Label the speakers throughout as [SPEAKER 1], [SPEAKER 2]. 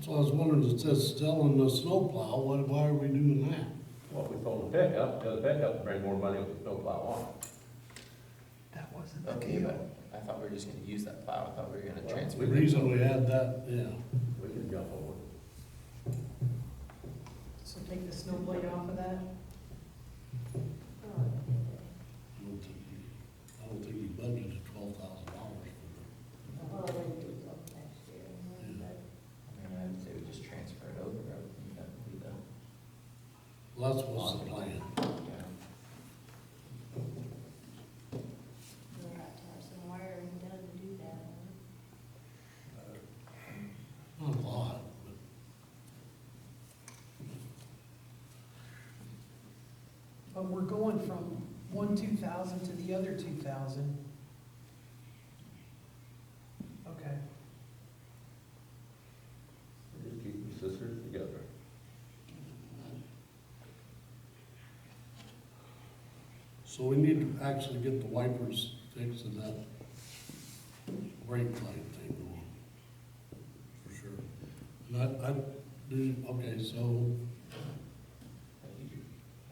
[SPEAKER 1] So I was wondering, it says selling the snowplow, why, why are we doing that?
[SPEAKER 2] Well, we sold the pickup, because the pickup bring more money with the snowplow on.
[SPEAKER 3] That wasn't
[SPEAKER 4] Oh,
[SPEAKER 3] the
[SPEAKER 5] Okay,
[SPEAKER 3] deal.
[SPEAKER 5] but I thought we were just gonna use that plow, I thought we were gonna
[SPEAKER 2] Well,
[SPEAKER 5] transfer.
[SPEAKER 1] The
[SPEAKER 5] it.
[SPEAKER 1] reason we had that, yeah,
[SPEAKER 2] We can jump over.
[SPEAKER 4] So take the snow blade off of that?
[SPEAKER 1] I don't think, he- I don't think he budgeted twelve thousand dollars for
[SPEAKER 5] I mean, I'd say we just transfer it over, I would think that would be the,
[SPEAKER 1] it. Well, that's what's the plan.
[SPEAKER 5] yeah.
[SPEAKER 6] We'll have to have some wiring done to do that.
[SPEAKER 1] Not a lot,
[SPEAKER 4] But we're going from one two thousand to the other two thousand. Okay,
[SPEAKER 2] Just keep your sisters together.
[SPEAKER 1] but, so we need to actually get the wipers fixed and that brake light thing going, for sure. And I, I, do, okay, so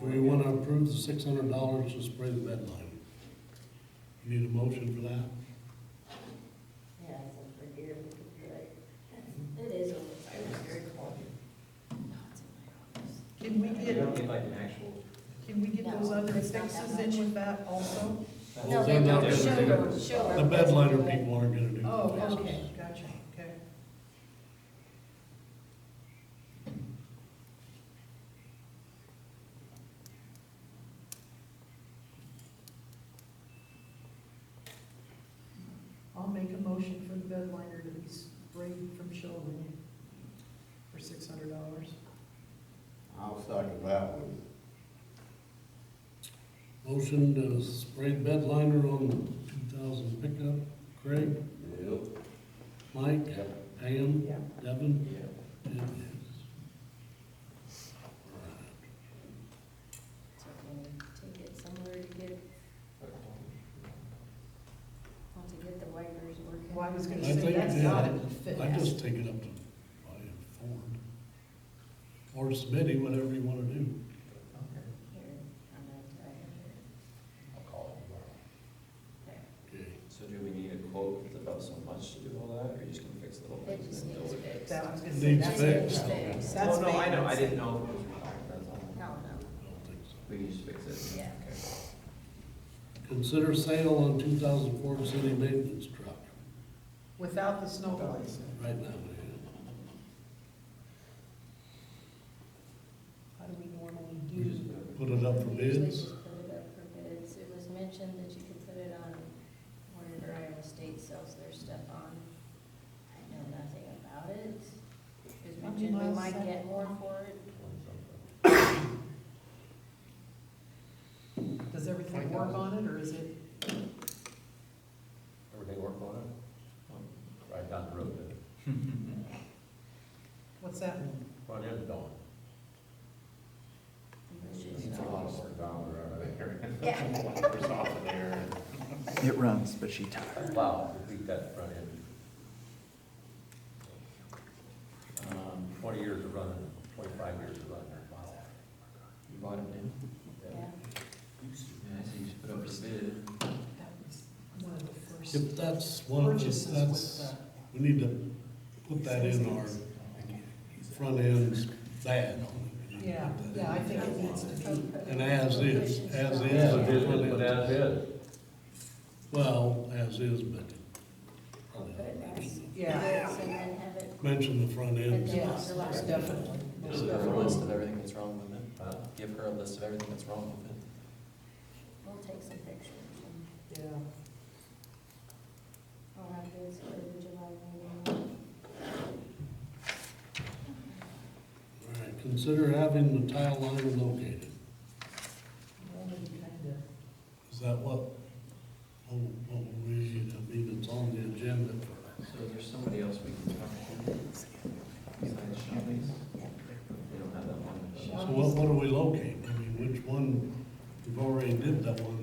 [SPEAKER 1] do we wanna approve the six hundred dollars to spray the bed line? You Need a motion for that?
[SPEAKER 6] Yeah, it's over here, we could do it. It is over
[SPEAKER 5] I was
[SPEAKER 6] here.
[SPEAKER 5] just calling you.
[SPEAKER 6] No, it's in
[SPEAKER 4] can
[SPEAKER 6] my office.
[SPEAKER 4] we
[SPEAKER 5] You
[SPEAKER 4] get,
[SPEAKER 5] don't need like an actual,
[SPEAKER 4] can we get those
[SPEAKER 6] No,
[SPEAKER 4] other
[SPEAKER 6] it's not that
[SPEAKER 4] fixes in
[SPEAKER 6] much.
[SPEAKER 4] with that also?
[SPEAKER 1] Well,
[SPEAKER 6] No,
[SPEAKER 1] they're
[SPEAKER 6] they
[SPEAKER 1] not
[SPEAKER 6] don't
[SPEAKER 1] gonna
[SPEAKER 6] show,
[SPEAKER 2] do it.
[SPEAKER 6] show.
[SPEAKER 1] The
[SPEAKER 6] our-
[SPEAKER 1] bed liner people aren't gonna do.
[SPEAKER 4] Oh,
[SPEAKER 1] that.
[SPEAKER 4] okay, gotcha, okay. I'll make a motion for the bed liner to be sprayed from Sheldon for six hundred dollars.
[SPEAKER 7] I'll second that one.
[SPEAKER 1] Motion to spray the bed liner on the two thousand pickup, Craig,
[SPEAKER 2] Yep.
[SPEAKER 1] Mike, Pam,
[SPEAKER 4] Yeah.
[SPEAKER 1] Devin,
[SPEAKER 5] yeah.
[SPEAKER 1] and yes.
[SPEAKER 6] So we'll Take it somewhere to get, I'll have to get the wipers working.
[SPEAKER 4] Well, I was gonna
[SPEAKER 1] I
[SPEAKER 4] say,
[SPEAKER 1] think,
[SPEAKER 4] that's
[SPEAKER 1] yeah,
[SPEAKER 4] gotta be
[SPEAKER 1] I
[SPEAKER 4] fixed.
[SPEAKER 1] just take it up to, I Ford. Or Smitty, whatever you wanna do.
[SPEAKER 5] Okay,
[SPEAKER 6] Here, I'm gonna try it.
[SPEAKER 5] I'll call him tomorrow.
[SPEAKER 1] Okay.
[SPEAKER 5] So do we need a quote that's about so much to do all that, or you just gonna fix little
[SPEAKER 6] It
[SPEAKER 5] things?
[SPEAKER 6] just
[SPEAKER 5] and
[SPEAKER 6] needs
[SPEAKER 5] build it?
[SPEAKER 6] fixed.
[SPEAKER 4] That I was gonna say,
[SPEAKER 1] Needs
[SPEAKER 4] that's.
[SPEAKER 1] fixed.
[SPEAKER 6] Fixed.
[SPEAKER 4] That's
[SPEAKER 5] Well, no, I know, I
[SPEAKER 4] maintenance.
[SPEAKER 5] didn't know if it was required, that's all.
[SPEAKER 6] No, no.
[SPEAKER 1] I don't think so.
[SPEAKER 5] We can just fix it.
[SPEAKER 6] Yeah.
[SPEAKER 5] Okay.
[SPEAKER 1] Consider sale on two thousand Ford City maintenance truck,
[SPEAKER 4] Without the snow blades.
[SPEAKER 1] right now, man.
[SPEAKER 4] How do we normally
[SPEAKER 5] We
[SPEAKER 4] do?
[SPEAKER 5] just do it.
[SPEAKER 1] Put it up for
[SPEAKER 6] Usually
[SPEAKER 1] bids.
[SPEAKER 6] just Put it up for bids. It was mentioned that you could put it on wherever Iowa State sells their stuff on. I know nothing about it. It was
[SPEAKER 4] How many
[SPEAKER 6] mentioned we
[SPEAKER 4] miles
[SPEAKER 6] might
[SPEAKER 4] is that?
[SPEAKER 6] get more for it.
[SPEAKER 4] Does everything work on it, or is it?
[SPEAKER 2] Everything work on it? Right down the road then.
[SPEAKER 4] What's that mean?
[SPEAKER 2] Front end dawn.
[SPEAKER 7] It's a lot of work down there, I think.
[SPEAKER 6] Yeah.
[SPEAKER 7] There's off of there.
[SPEAKER 3] It runs, but she tired.
[SPEAKER 2] Wow, repeat that front end.
[SPEAKER 5] Um,
[SPEAKER 2] Twenty years of running, twenty-five years of running.
[SPEAKER 5] You bought it new?
[SPEAKER 6] Yeah.
[SPEAKER 5] Yeah, I see, you just put up a bid.
[SPEAKER 4] That was one of the first
[SPEAKER 1] If that's one of
[SPEAKER 4] purchases
[SPEAKER 1] the,
[SPEAKER 4] with
[SPEAKER 1] that's,
[SPEAKER 4] the.
[SPEAKER 1] we need to put that in our front end bad.
[SPEAKER 4] Yeah, yeah, I think it needs to be,
[SPEAKER 1] And as is, as
[SPEAKER 2] Yeah,
[SPEAKER 1] is.
[SPEAKER 2] but it is, but that is.
[SPEAKER 1] Well, as is, but probably
[SPEAKER 6] Put it
[SPEAKER 1] not.
[SPEAKER 6] nice.
[SPEAKER 4] yeah,
[SPEAKER 6] And then have it,
[SPEAKER 1] mention the front end.
[SPEAKER 4] yeah, definitely.
[SPEAKER 5] Give her a Uh, list of everything that's wrong with it.
[SPEAKER 2] Huh?
[SPEAKER 5] Give her a list of everything that's wrong with it.
[SPEAKER 6] we'll take some pictures. and
[SPEAKER 4] Yeah,
[SPEAKER 6] I'll have bids for the July meeting.
[SPEAKER 1] All right, consider having the tile liner located.
[SPEAKER 4] Already kinda-
[SPEAKER 1] Is that what, oh, what we, I mean, it's on the agenda for,
[SPEAKER 5] So is there somebody else we can talk to? Besides Shawnee's? They don't have that one.
[SPEAKER 1] so what, what do we locate? I mean, which one, we've already did that one